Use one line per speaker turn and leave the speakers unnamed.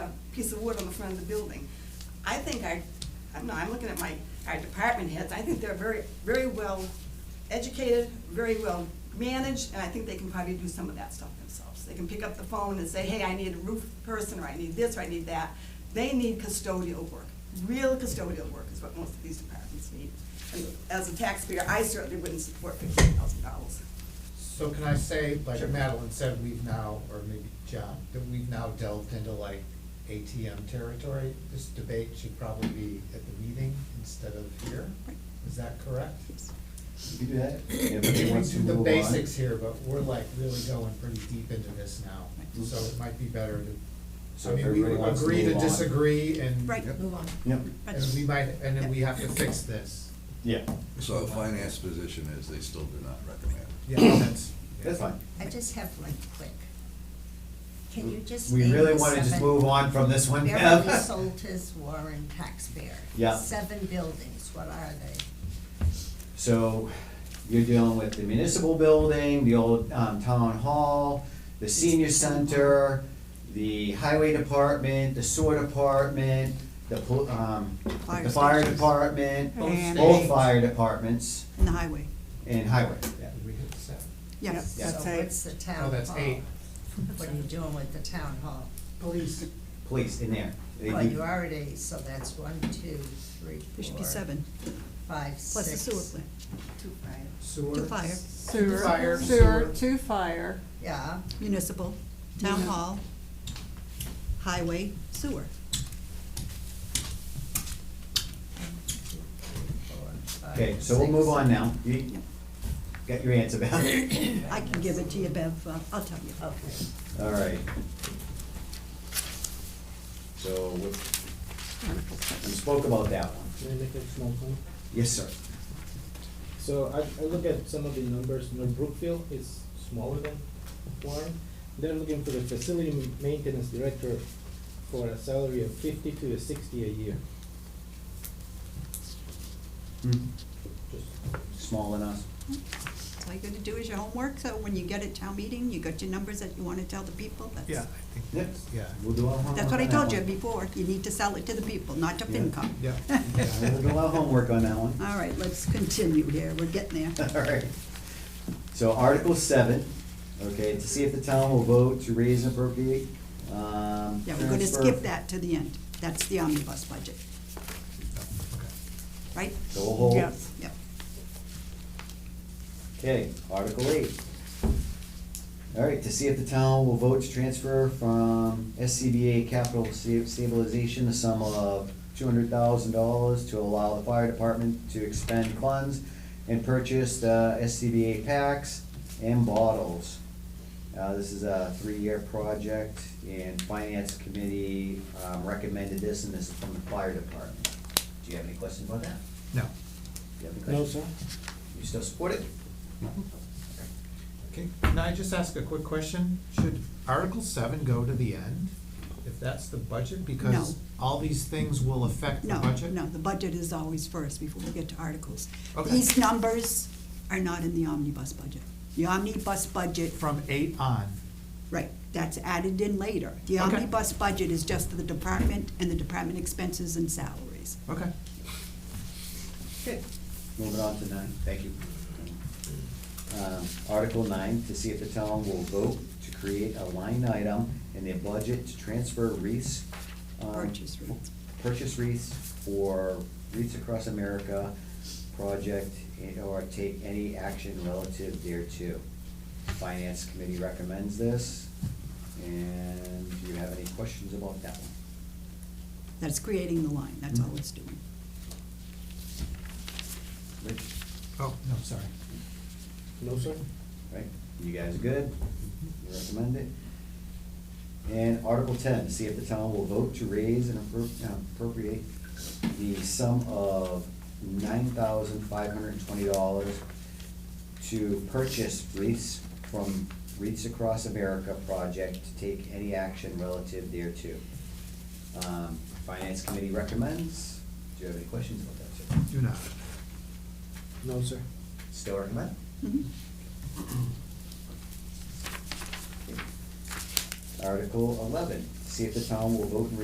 piece of wood on the front of the building. I think our, I'm not, I'm looking at my, our department heads, I think they're very, very well educated, very well managed, and I think they can probably do some of that stuff themselves. They can pick up the phone and say, hey, I need a roof person, or I need this, or I need that. They need custodial work, real custodial work is what most of these departments need. And as a taxpayer, I certainly wouldn't support fifteen thousand dollars.
So can I say, like
Sure.
Madeline said, we've now, or maybe John, that we've now delved into like ATM territory? This debate should probably be at the meeting instead of here, is that correct?
You do that?
I mean, We do the basics here, but we're like really going pretty deep into this now,
Right.
so it might be better to,
So
I mean, we
everybody wants to
agree to
move on.
disagree and.
Right,
Yep.
move on.
Yep,
And we might, and then we have to fix this.
yeah,
So finance position is they still do not recommend.
Yeah, that's.
that's fine.
I just have one quick. Can you just?
We
name
really
the
wanna just
seven-
move on from this one.
Beverly Soltis Warren taxpayer.
Yeah.
Seven buildings, what are they?
So you're dealing with the municipal building, the old um, town hall, the senior center, the highway department, the sewer department, the, pol- um,
Fire
the fire
stations.
department,
And-
both fire departments,
In the highway,
and highway, yeah.
Did we hit seven?
yes,
Yeah.
that's
So
eight.
what's the town hall?
Oh, that's eight.
What are you doing with the town hall?
Police.
Police in there. They
Well,
do-
you already, so that's one, two, three,
There should
four,
be seven,
five,
plus the
six.
sewer plant.
Two five.
Sewer.
To fire.
Fire,
Sewer, sewer,
sewer.
to fire,
Yeah,
municipal, town hall, highway, sewer.
four, five,
Okay, so we'll move
six.
on now. You got your answer, Val?
I can give it to you, Bev, uh, I'll tell you.
Okay.
All right. So we- we spoke about that one.
Can I make a small comment?
Yes, sir.
So I, I look at some of the numbers, you know, Brookfield is smaller than Warren. They're looking for the facility maintenance director for a salary of fifty to sixty a year.
Hmm.
Just
Small enough.
So all you gotta do is your homework, so when you get at town meeting, you got your numbers that you wanna tell the people, that's.
Yeah, I think
Yep.
that's, yeah.
We'll do our homework.
That's what I
on that
told you
one.
before, you need to sell it to the people, not to
Yeah.
FinCom.
Yeah.
We'll do our homework on that one.
All right, let's continue here, we're getting there.
All right. So Article seven, okay, to see if the town will vote to raise and appropriate, um.
Yeah, we're gonna
transfer-
skip that to the end, that's the omnibus budget, right?
So we'll hold.
yes.
Yep.
Okay, Article eight. All right, to see if the town will vote to transfer from SCBA capital sta- stabilization the sum of two hundred thousand dollars to allow the fire department to expend funds and purchase the SCBA packs and bottles. Uh, this is a three-year project and finance committee, um, recommended this and this is from the fire department. Do you have any questions about that?
No.
Do you have any
No,
questions?
sir?
You still support it?
Okay, can I just ask a quick question? Should Article seven go to the end, if that's the budget? Because
No.
all these things will affect the
No,
budget?
no, the budget is always first before we get to articles.
Okay.
These numbers are not in the omnibus budget. The omnibus budget,
From eight on,
right, that's added in later. The
Okay.
omnibus budget is just for the department and the department expenses and salaries.
okay.
Moving on to nine, thank you. Um, Article nine, to see if the town will vote to create a line item in their budget to transfer wreaths. um,
Purchase wreaths.
Purchase wreaths for Wreaths Across America project and or take any action relative thereto. Finance committee recommends this, and do you have any questions about that one?
That's creating the line, that's all it's doing.
Rich,
Oh, no, sorry.
No, sir?
right? You guys are good, you recommend it. And Article ten, to see if the town will vote to raise and appro- uh, appropriate the sum of nine thousand five hundred and twenty dollars to purchase wreaths from Wreaths Across America project to take any action relative thereto. Um, Finance Committee recommends, do you have any questions about that, sir?
Do not.
No, sir.
Still recommend?
Mhm.
Article eleven, see if the town will vote and